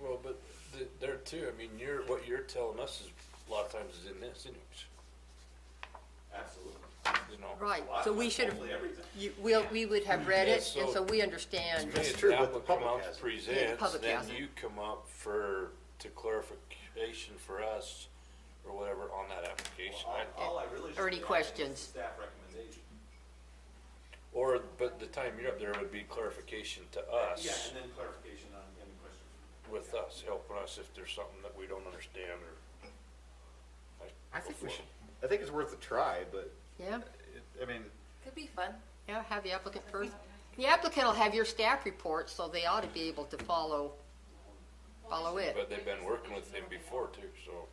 Well, but th- there too, I mean, you're, what you're telling us is, a lot of times is in this anyways, Absolutely. you know? Right, A lot so of we times, should have, Hopefully everything. you, we, we would have read it, Yeah, and so- so we understand. Me, That's if true, that but would the come public out hasn't. to Yeah, the present, public then hasn't. you come up for, to clarification for us or whatever on that application. All- I- All I really should. Or any be on is questions? Staff recommendation. Or, but the time you're up there would be clarification to Yeah, us, and then clarification on any questions. with us, helping us if there's something that we don't understand or. I think we should, I think it's worth a try, but, Yeah, it- I mean, Could be fun. yeah, have the applicant first. The applicant will have your staff report, so they ought to be able to follow, follow it. But they've been working with him before too, so.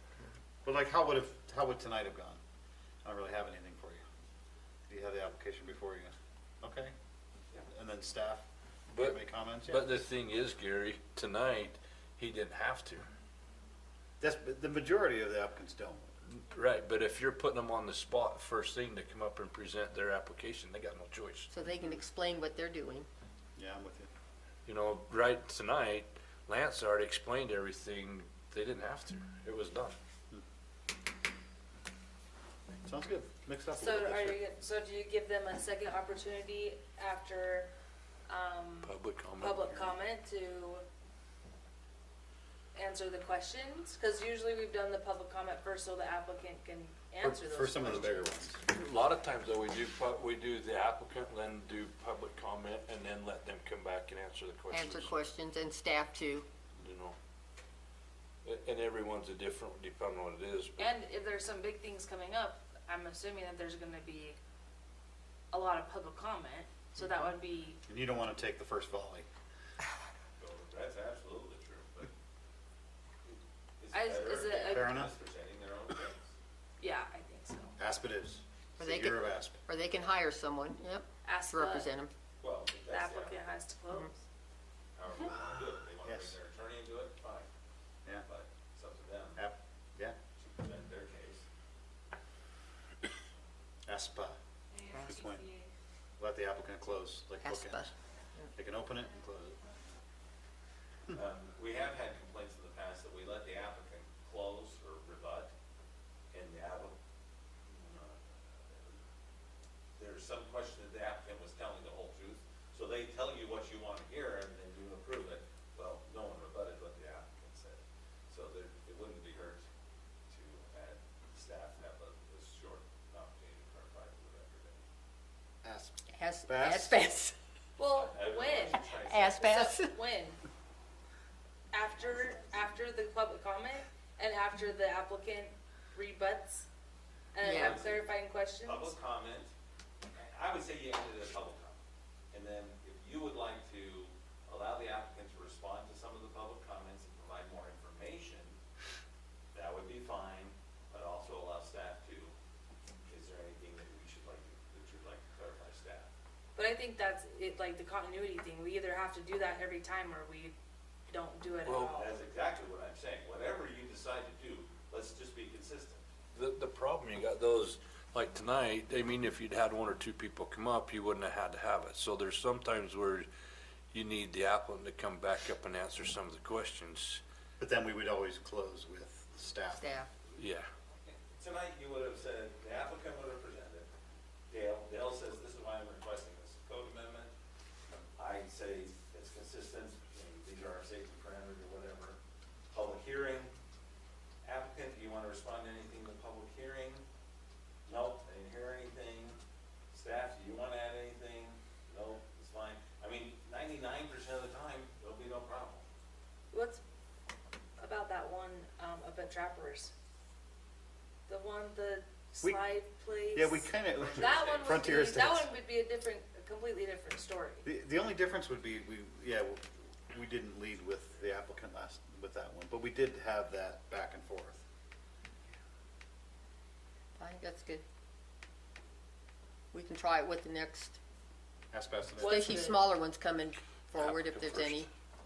but like, how would have, how would tonight have gone? I don't really have anything for you. Do you have the application before you? Okay. And then staff, do you have But- any comments? Yeah. But the thing is, Gary, tonight, he didn't have to. That's, the majority of the applicants don't. Right, but if you're putting them on the spot first thing to come up and present their application, they got no choice. So they can explain what they're doing. Yeah, I'm with you. You know, right tonight, Lance already explained everything. They didn't have to. It was done. Sounds good. Mixed up a So little bit. are sure. you, so do you give them a second opportunity after, um, Public comment. public comment to answer the questions? Cause usually we've done the public comment first so the applicant can For- answer those For some of the bigger questions. ones. A lot of times though, we do, pu- we do the applicant, then do public comment, and then let them come back and answer the questions. Answer questions and staff too. You know? A- And everyone's a different, depending on what it is. but- And if there's some big things coming up, I'm assuming that there's gonna be a lot of public comment, so that would be, And you don't want to take the first volley. So That's absolutely true, but. it's I- better is if it a- they're Fair enough. just Presenting their own case. yeah, I think so. Asp it Or is. It's they the year could- of asp. Or they can hire someone, yep, Ask to the represent them. Well, if the that's the applicant has to close. applicant, however they wanna do it, if they wanna bring Yes. their attorney into it, fine, Yeah. but it's up to them App, yeah. to present their case. Aspa. Good point. Let the applicant close, like bookends. ASPA. They can open it and close it. Um, we have had complaints in the past that we let the applicant close or rebut, and the applicant, there's some question that the applicant was telling the whole truth, so they tell you what you want to hear, and then you approve it. Well, no one rebutted what the applicant said, so there, it wouldn't be hurt to add staff have a, a short opportunity to clarify the record. Asp. As- Bass. Aspas. Well, I don't know when? what you're trying to say. Aspas. So, When? After, after the public comment and after the applicant rebuts and Yeah. have clarifying questions? public comment, I would say you end it at public comment. And then if you would like to allow the applicant to respond to some of the public comments and provide more information, that would be fine, but also allow staff to, is there anything that we should like, that you'd like to clarify staff? But I think that's it, like the continuity thing, we either have to do that every time or we don't do it at Well, all. That's exactly what I'm saying, whatever you decide to do, let's just be consistent. The, the problem you got those, like tonight, I mean, if you'd had one or two people come up, you wouldn't have had to have it. So there's sometimes where you need the applicant to come back up and answer some of the questions. But then we would always close with staff. Staff. Yeah. Tonight, you would have said, the applicant would have presented, Dale, Dale says, this is why I'm requesting this code amendment. I say it's consistent, you know, these are our safety parameters or whatever. Public hearing, applicant, do you want to respond to anything in the public hearing? Nope, I didn't hear anything. Staff, do you want to add anything? No, it's fine. I mean, ninety-nine percent of the time, there'll be no problem. What's about that one, um, up at Trappers? The one, the We- slide place? Yeah, we kind of. That one would be, Frontier that Estates. one would be a different, a completely different story. The, the only difference would be, we, yeah, we- we didn't lead with the applicant last, with that one, but we did have that back and forth. I think that's good. We can try it with the next, Aspas. What- especially the- smaller ones coming forward if Applicant there's first. any.